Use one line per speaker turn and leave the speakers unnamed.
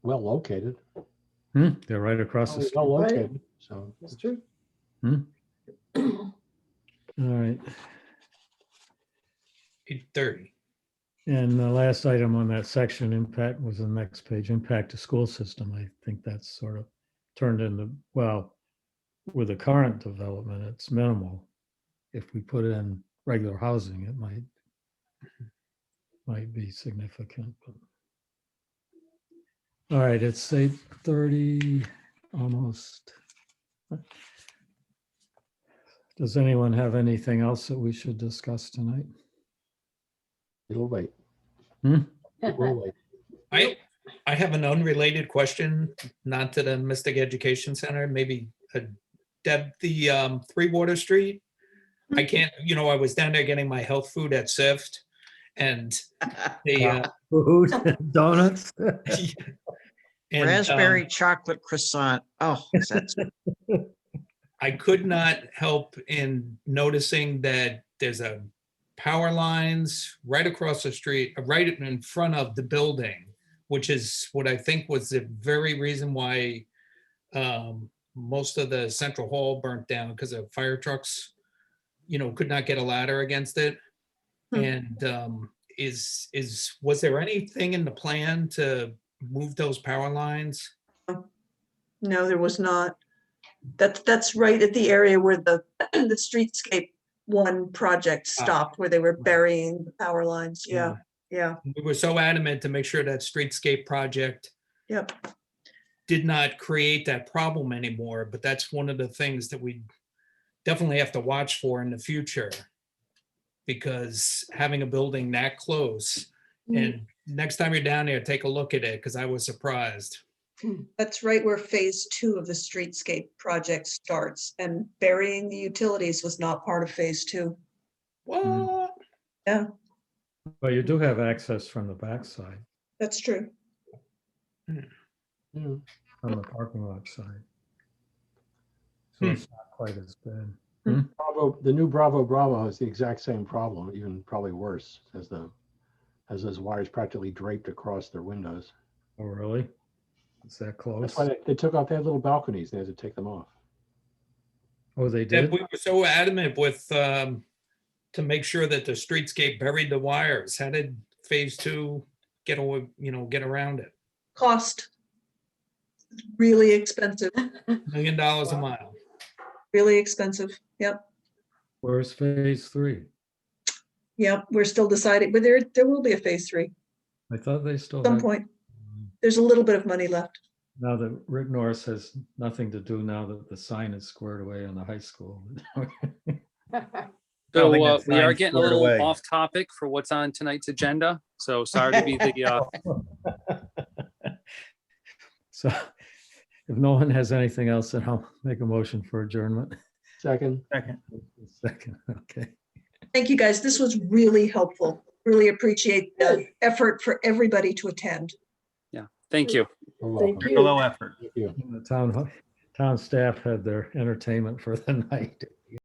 well located.
Hmm, they're right across the
Probably
street.
Well
Oh,
located, so.
Right. That's true.
All right.
Eight thirty.
And the last item on that section impact was the next page, impact to school system. I think that's sort of turned into, well, with the current development, it's minimal. If we put in regular housing, it might might be significant. but- All right, it's eight thirty, almost. Does anyone have anything else that we should discuss tonight?
It'll wait.
Hmm?
It will wait.
I, I have an unrelated question, not to the Mystic Education Center, maybe uh, Deb, the um, Three Water Street. I can't, you know, I was down there getting my health food at SIFT and they. uh,
Food, donuts.
and, um,
Raspberry chocolate croissant. Oh, is that-
I could not help in noticing that there's a power lines right across the street, uh, right in front of the building, which is what I think was the very reason why um, most of the central hall burnt down because of fire trucks, you know, could not get a ladder against it.
Hmm.
And um, is, is, was there anything in the plan to move those power lines?
No, there was not. That, that's right at the area where the, the streetscape one project stopped, where they were burying the power lines. Yeah, yeah,
We were so adamant to make sure that streetscape project
yep.
did not create that problem anymore, but that's one of the things that we definitely have to watch for in the future. Because having a building that close
Mm-hmm. Mm,
and next time you're down there, take a look at it because I was surprised.
That's right where phase two of the streetscape project starts and burying the utilities was not part of phase two.
What?
Yeah,
Well, you do have access from the backside,
that's true.
Yeah.
from the parking lot side. So
Hmm.
it's not quite as bad.
Bravo, the new Bravo Bravo has the exact same problem, even probably worse, as the, as those wires practically draped across their windows.
Oh, really? Is that close?
That's why they, they took off, they had little balconies, they had to take them off.
Oh, they did?
Deb, we were so adamant with, um, to make sure that the streetscape buried the wires. How did phase two get away, you know, get around it?
Cost. Really expensive,
Million dollars a mile.
really expensive. Yep.
Where's phase three?
Yep, we're still deciding, but there, there will be a phase three
I thought they still.
at some
had-
point. There's a little bit of money left.
Now that Rick Norris has nothing to do now that the sign is squared away on the high school. I don't
So
think
uh,
that
we are
sign's
getting a
squared
little
away.
off topic for what's on tonight's agenda. So sorry to be the uh,
So if no one has anything else, then I'll make a motion for adjournment.
Second,
Second, okay.
Thank you, guys. This was really helpful. Really appreciate the effort for everybody to attend.
thank you.
you're
Thank
welcome.
you.
Thank you.
The town, town staff had their entertainment for the night.